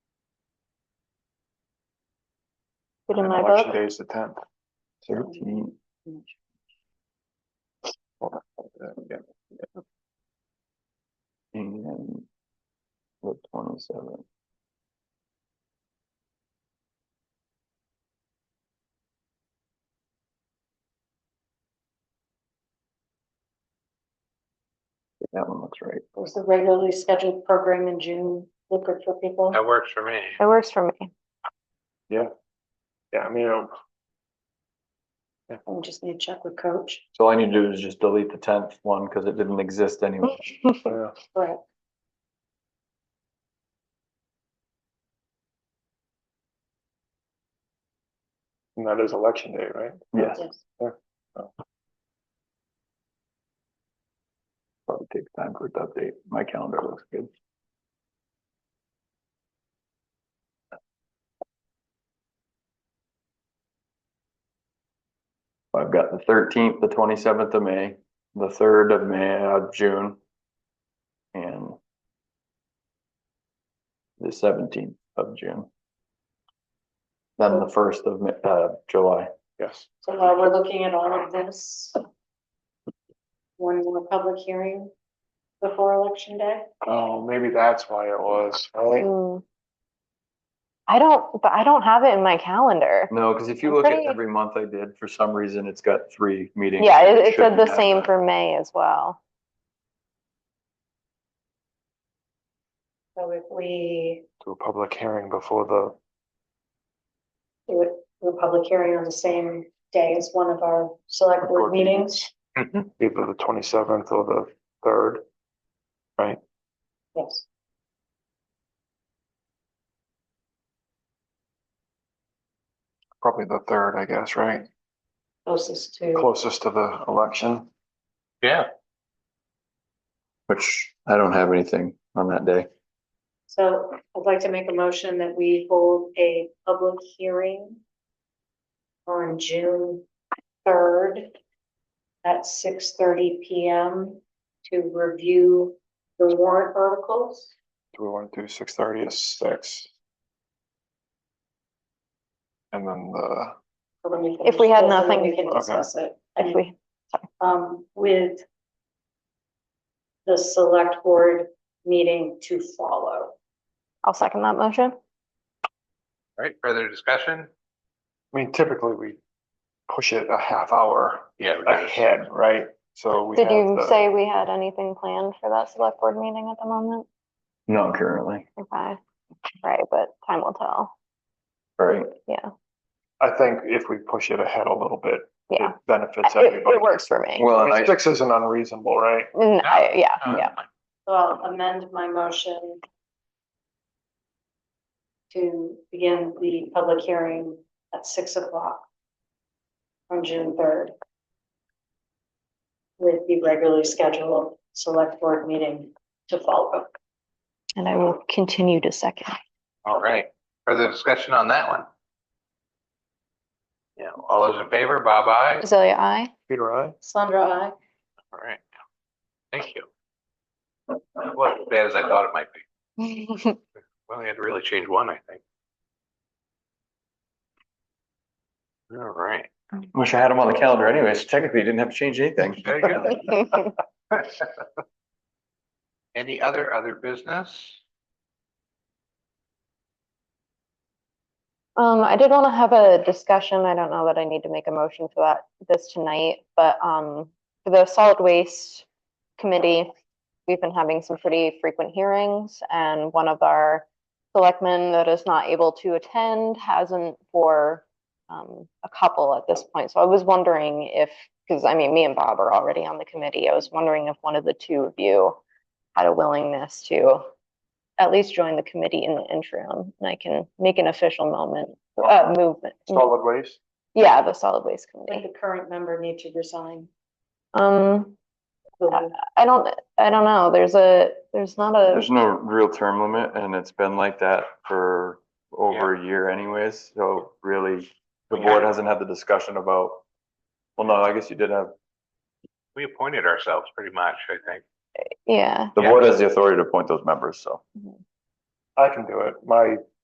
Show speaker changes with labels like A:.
A: Good in
B: And
A: my
B: election
A: book.
B: Day is the tenth. Thirteen.
C: I'm
D: uh,
B: And the twenty-seventh. That one looks right.
C: There's the regularly scheduled program in June, look good for people.
E: That works for me.
A: It works for me.
B: Yeah. Yeah, I mean, it'll-
C: We just need to check with coach,
D: So all I need to do is just delete the tenth one because it didn't exist anyway.
B: yeah,
C: but
B: and that is election day, right?
D: Yes.
B: Probably takes time for it to update. My calendar looks good.
D: I've got the thirteenth, the twenty-seventh of May, the third of May, uh, June. And. The seventeenth of June. Then the first of, Ma- uh, July.
B: Yes.
C: so while we're looking at all of this. One more public hearing before election day.
B: Oh, maybe that's why it was. Right?
A: Mm. I don't, but I don't have it in my calendar.
D: No, because if you
A: I'm
D: look at
A: pretty-
D: every month I did, for some reason, it's got three meetings.
A: Yeah,
D: and
A: it, it said
D: shouldn't
A: the
D: have
A: same
D: that.
A: for May as well.
C: So if we
B: To a public hearing before the,
C: do it, do a public hearing on the same day as one of our select board meetings.
B: either the twenty-seventh or the third.
C: Yes.
B: Probably the third, I guess, right?
C: Closest to,
B: Closest to the election.
E: Yeah.
D: Which I don't have anything on that day.
C: so I'd like to make a motion that we hold a public hearing. On June third. At six thirty P M to review the warrant articles.
B: Do we want to do six thirty or six? And then the,
C: so then can
A: If we had
C: discuss- then
A: nothing-
C: We can
B: Okay.
C: discuss it.
A: If we,
C: Um, with. The select board meeting to follow.
A: I'll second that motion.
E: All right, further discussion?
B: I mean, typically we push it a half hour
E: Yeah. we got it.
B: ahead, right? So we have
A: Did you
B: the-
A: say we had anything planned for that select board meeting at the moment?
D: Not currently,
A: Okay, right, but time will tell.
D: right?
B: I think if we push it ahead a little bit, it
A: Yeah,
B: benefits
A: it,
B: everybody.
A: it works for me.
D: Well,
B: I
D: and
B: mean,
D: I,
B: Six isn't unreasonable, right?
A: Mm, I- Yeah,
E: No,
A: yeah.
C: So I'll amend my motion. To begin the public hearing at six o'clock. On June third. With the regularly scheduled select board meeting to follow.
A: And I will continue to second.
E: All right, further discussion on that one? Yeah, all those in favor, Bob, aye.
A: Azalea, I.
B: Peter, I?
C: Sandra, I.
E: All right, thank you. That wasn't as bad as I thought it might be. We only had to really change one, I think. All right,
D: wish I had them on the calendar anyways. Technically, you didn't have to change anything.
E: there you go. Any other, other business?
A: Um, I did want to have a discussion. I don't know that I need to make a motion for that this tonight, but um, for the solid waste committee, we've been having some pretty frequent hearings and one of our selectmen that is not able to attend hasn't for um, a couple at this point. So I was wondering if, because I mean, me and Bob are already on the committee. I was wondering if one of the two of you had a willingness to at least join the committee in the interim, and I can make an official moment, uh, movement.
B: Solid waste?
A: Yeah, the solid waste
C: Would
A: committee.
C: the current member need to resign?
A: Um,
C: Will
A: I don't, I don't know, there's a, there's not a,
D: There's no real term limit and it's been like that for over a year anyways. So really, the
E: We
D: board
E: had-
D: hasn't had the discussion about, well, no, I guess you did have,
E: We appointed ourselves pretty much, I think.
A: yeah,
D: the
E: Yeah.
D: board has the authority to appoint those members, so.
B: I can do it. My